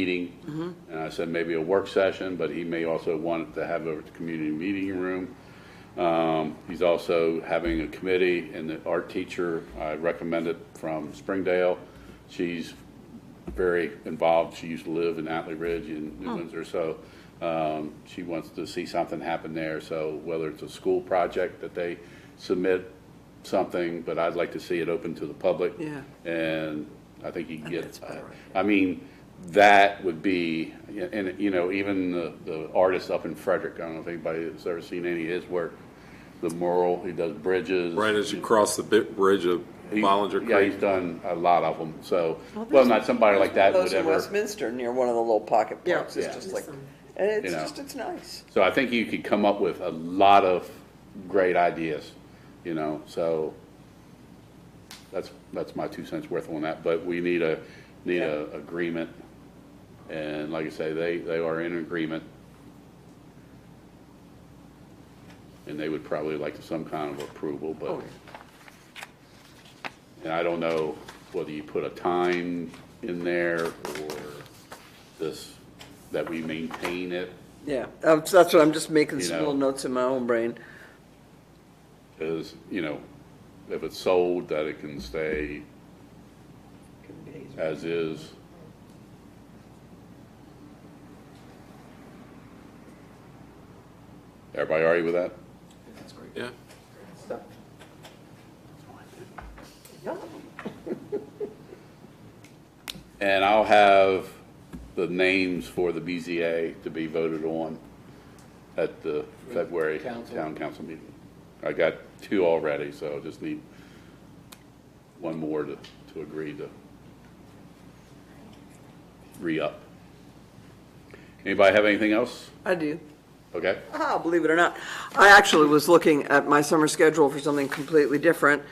meeting. And I said maybe a work session, but he may also want to have a community meeting room. Um, He's also having a committee, and the art teacher I recommended from Springdale, she's very involved. She used to live in Atlee Ridge in Hmm. New Windsor, so um, she wants to see something happen there. So whether it's a school project that they submit something, but I'd like to see it open to the public. Yeah. And I think you can that's get, about right. I mean, that would be, and, you know, even the, the artist up in Frederick, I don't know if anybody has ever seen any of his work, the mural, he does bridges. Right as you cross the bit bridge of He- Bollinger Yeah, he's Creek. done a lot of them, so, Oh, well, not somebody like that Those would in ever. Westminster near one of the little pocket Yeah. parks, it's Yeah. just like, and it's You know. just, it's nice. So I think you could come up with a lot of great ideas, you know, so that's, that's my two cents worth on that, but we need a, need a agreement. And like I say, they, they are in agreement. And they would probably like some kind of approval, but, Oh, and I don't know whether you put a time in there or this, that we maintain it, Yeah, Um, so that's what I'm just making You some know. little notes in my own brain. is, you know, if it's sold, that it can stay as is. Everybody all right with that? Yeah, And I'll have the names for the BZA to be voted on at the February town council meeting. I got two already, so I just need one more to, to agree to re-up. Anybody have anything else? I do. Okay? Ah, believe it or not, I actually was looking at my summer schedule for something completely different,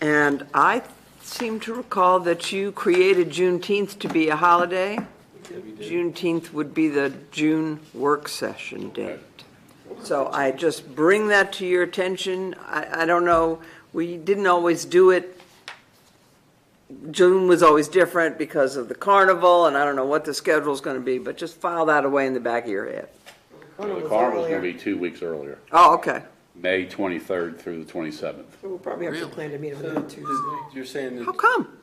and I seem to recall that you created Juneteenth to be a holiday. Juneteenth would be the June work session date. So I just bring that to your attention. I, I don't know, we didn't always do it. June was always different because of the carnival, and I don't know what the schedule's gonna be, but just file that away in the back of your head. Oh, The carnival's gonna be two weeks earlier, Oh, okay. May 23rd through the 27th, We'll probably have to Really? plan to meet on that Tuesday. You're saying How come?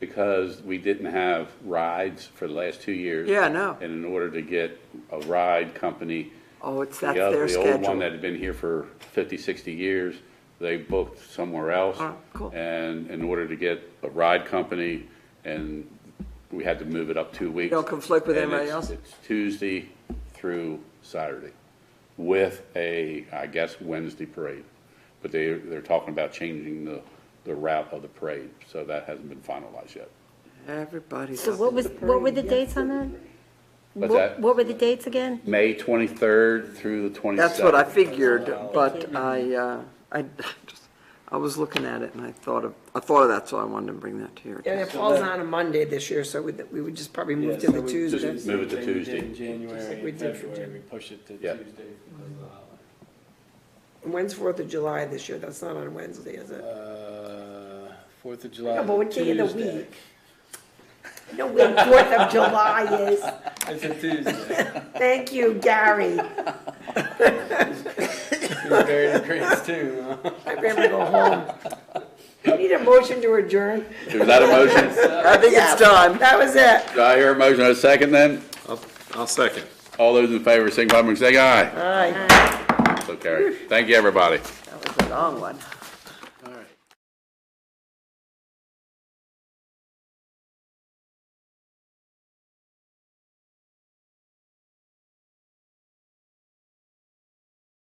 because we didn't have rides for the last two years. Yeah, I know. And in order to get a ride company, Oh, it's, that's Yeah, their The old one that schedule. had been here for 50, 60 years, they booked somewhere else. All right, Oh, cool. And in order to get a ride company, and we had to move it up two weeks. Don't conflict with And anybody it's- else? It's Tuesday through Saturday with a, I guess, Wednesday parade. But they, they're talking about changing the, the route of the parade, so that hasn't been finalized yet. Everybody's. So what was, what were the dates on that? What's What- that? What were the dates again? May 23rd through the 27th. That's what I figured, but I, uh, I, just- I was looking at it and I thought of, I thought of that, so I wanted to bring that to your And attention. it falls on a Monday this year, so we, we would just probably move to the Tuesday. Just move it to Same thing we Tuesday. did in Just like January we and did for February, Jan- we pushed it to Yeah. Tuesday because of the holiday. When's Fourth of July this year? That's not on Wednesday, is it? Uh, Fourth of July. No, but what day of the Tuesday. week? No, wait, Fourth of July is, It's a Tuesday. thank you, Gary. You're buried in Greece too, huh? I'm ready to go home. I need a motion to adjourn. Is that a motion? I think it's done. time. That was it. Do I hear a motion in a second then? I'll, I'll second. All those in favor, signify by saying aye. All right. So carried. Thank you, everybody. That was a long one.